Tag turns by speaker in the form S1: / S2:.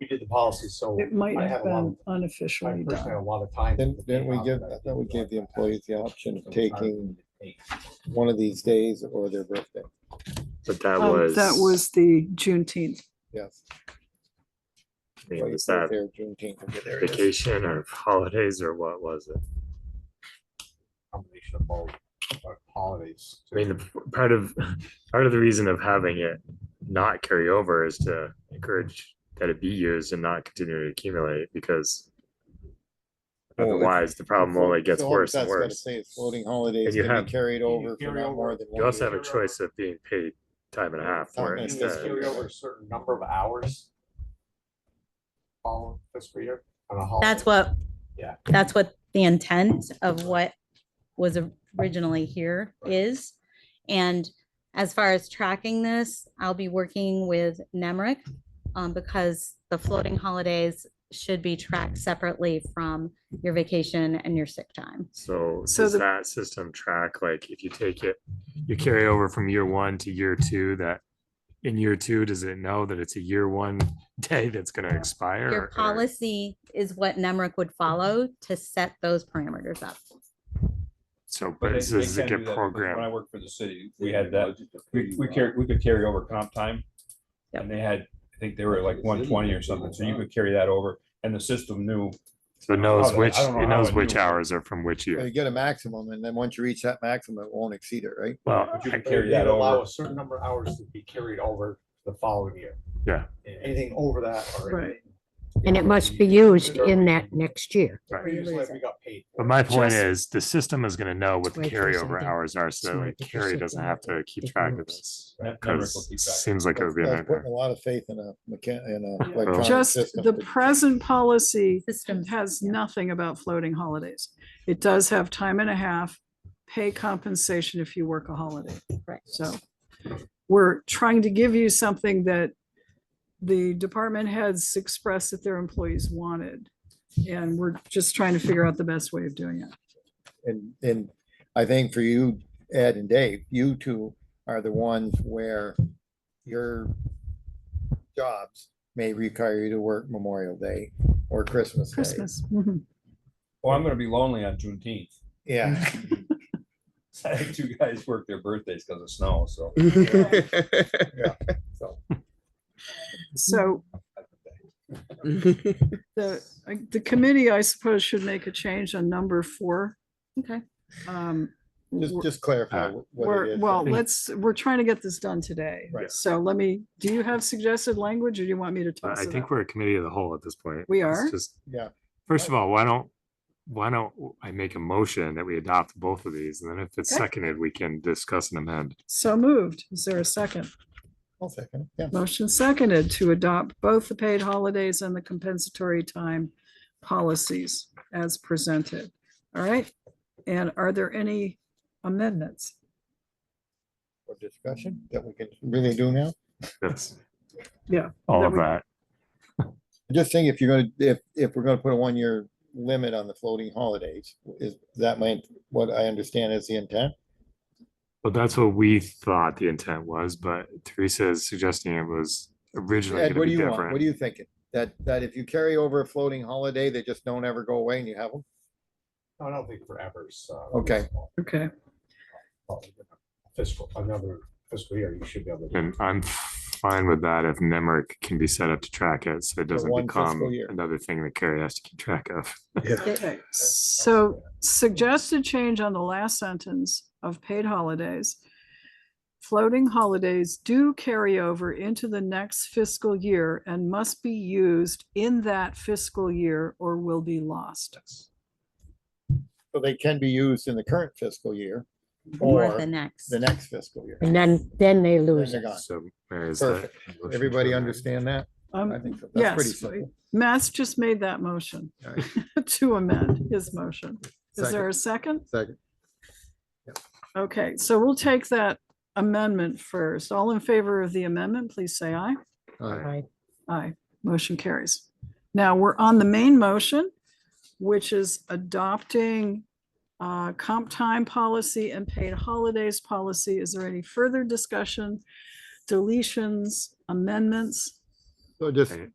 S1: we did the policy, so
S2: It might
S1: I
S2: have
S1: have a lot of-
S2: been
S1: I
S2: unofficially
S1: personally had a
S2: done.
S1: lot of time.
S3: Didn't, didn't we give, I thought we gave the employees the option of taking one of these days or their birthday.
S4: But that
S2: Um,
S4: was.
S2: That was the Juneteenth.
S3: Yes.
S4: I mean,
S3: Well, you
S4: was
S3: said
S4: that
S3: there, Juneteenth, okay, there it is.
S4: vacation or holidays or what was it?
S1: Combination of both, uh, holidays.
S4: I mean, the part of, part of the reason of having it not carry over is to encourage that it be used and not continue to accumulate because
S3: Well, if-
S4: otherwise the problem only gets
S3: So all
S4: worse and
S3: that's gotta
S4: worse.
S3: say is Floating holidays
S4: And you
S3: can
S4: have-
S3: be carried over for
S1: carry
S3: not more
S1: over-
S3: than one.
S4: You also have
S3: year.
S4: a choice of being paid time and a half for
S3: Time and
S4: it
S3: a
S1: You just
S4: instead.
S1: carry over a certain number of hours. All fiscal year on a holiday.
S5: That's what.
S1: Yeah.
S5: That's what the intent of what was originally here
S1: Right.
S5: is. And as far as tracking this, I'll be working with Nemrick. Um, because the floating holidays should be tracked separately from your vacation and your sick time.
S4: So
S2: So
S4: does
S2: the-
S4: that system track, like if you take it, you carry over from year one to year two that in year two, does it know that it's a year one day that's gonna expire?
S5: Your
S4: or- or-
S5: policy is what Nemrick would follow to set those parameters up.
S4: So,
S6: But
S4: but
S6: they-
S4: this
S6: they
S4: is
S6: can
S4: like a
S6: do that, because When I
S4: program.
S6: worked for the city, we had that, we, we carry, we could carry over comp time.
S5: Yep.
S6: And they had, I think they were like one twenty or something, so you could carry that over, and the system knew,
S4: So it
S6: how
S4: knows
S6: that-
S4: which,
S6: I don't know
S4: it
S6: how
S4: knows
S6: it
S4: which
S6: knew.
S4: hours are from which
S3: So You
S4: year.
S3: get a maximum and then once you reach that maximum, it won't exceed it, right?
S4: Well,
S6: but you
S4: I-
S6: could carry
S1: They'd
S6: that
S1: Allow
S6: over.
S1: a certain number of hours to be carried over the following year.
S4: Yeah.
S1: And Anything over that or.
S2: Right.
S7: And it must be used in that next year.
S4: right.
S1: We usually- we got paid. for
S4: but
S1: it.
S4: my point
S7: Just-
S4: is the system is gonna know what the
S7: Wait for
S4: carryover
S7: something.
S4: hours are. So
S7: Sorry,
S4: like
S7: did you
S4: Carrie
S7: say
S4: doesn't
S7: that?
S4: have to keep
S7: It
S4: track of
S7: works.
S4: this.
S6: That number will
S4: Cause
S6: keep
S4: it
S6: track.
S4: seems like it
S3: That's
S4: would be a
S3: that's putting
S4: nightmare.
S3: a lot of faith in a mechan, in
S2: Yeah.
S3: a electronic
S2: Just
S3: system.
S2: the
S3: to-
S2: present policy
S5: Systems.
S2: has
S5: yeah.
S2: nothing about floating holidays. It does have time and a half, pay compensation if you work a holiday.
S5: Right.
S2: So we're trying to give you something that the department heads expressed that their employees wanted. And we're just trying to figure out the best way of doing it.
S3: And, and I think for you, Ed and Dave, you two are the ones where your jobs may require you to work Memorial Day or Christmas Day.
S2: Christmas. mhm.
S6: Oh, I'm gonna be lonely on Juneteenth.
S3: Yeah.
S6: I had two guys work their birthdays because of snow, so.
S2: So Mm-hmm. The, I- the committee, I suppose, should make a change on number four.
S5: Okay.
S2: Um,
S3: Just,
S2: we're-
S3: just clarify
S4: Uh,
S3: what it
S2: We're,
S3: is.
S2: well,
S4: think-
S2: let's, we're trying to get this done today.
S3: Right.
S2: So let me, do you have suggested language or do you want me to
S4: But
S2: toss
S4: I
S2: it
S4: think
S2: out?
S4: we're a committee of the whole at this point.
S2: We
S4: It's
S2: are?
S4: Just,
S3: Yeah.
S4: first of all, why don't, why don't I make a motion that we adopt both of these? And then if it's
S2: Okay.
S4: seconded, we can discuss and amend.
S2: So moved. Is there a second?
S3: I'll second it, yeah.
S2: Motion seconded to adopt both the paid holidays and the compensatory time policies as presented. All right. And are there any amendments?
S3: For discussion that we can really do now.
S4: That's.
S2: Yeah,
S4: All
S2: that
S4: of
S2: we-
S4: that.
S3: Just think if you're gonna, if, if we're gonna put a one-year limit on the floating holidays, is that my, what I understand is the intent?
S4: Well, that's what we thought the intent was, but Teresa is suggesting it was originally
S3: Ed,
S4: gonna
S3: what do
S4: be
S3: you want? What are
S4: different.
S3: you thinking? That, that if you carry over a floating holiday, they just don't ever go away and you have them?
S1: I don't think forever, so.
S3: Okay.
S2: Okay.
S1: Fiscal, another fiscal year, you should be able to. do it.
S4: And I'm fine with that if Nemrick can be set up to track it, so it doesn't
S3: one fiscal
S4: become
S3: year.
S4: another thing that Carrie has to keep track of.
S2: Okay, so suggested change on the last sentence of paid holidays. Floating holidays do carry over into the next fiscal year and must be used in that fiscal year or will be lost.
S3: So they can be used in the current fiscal year
S5: Or the
S3: or
S5: next.
S3: the next fiscal year.
S7: And then, then they
S3: Then
S7: lose
S3: they're
S7: it.
S3: gone.
S4: So where is that?
S3: Perfect.
S4: motion to
S3: Everybody
S4: amend?
S3: understand that? I
S2: Um,
S3: think so. That's pretty
S2: yes,
S3: simple.
S2: Matt's just made that motion
S3: All right.
S2: to amend his motion. Is
S3: Second.
S2: there a second?
S3: Second.
S2: Okay, so we'll take that amendment first. All in favor of the amendment, please say aye.
S3: All right.
S7: Right.
S2: Aye, motion carries. Now, we're on the main motion, which is adopting uh, comp time policy and paid holidays policy. Is there any further discussion? Deletions, amendments?
S3: So just
S4: Right.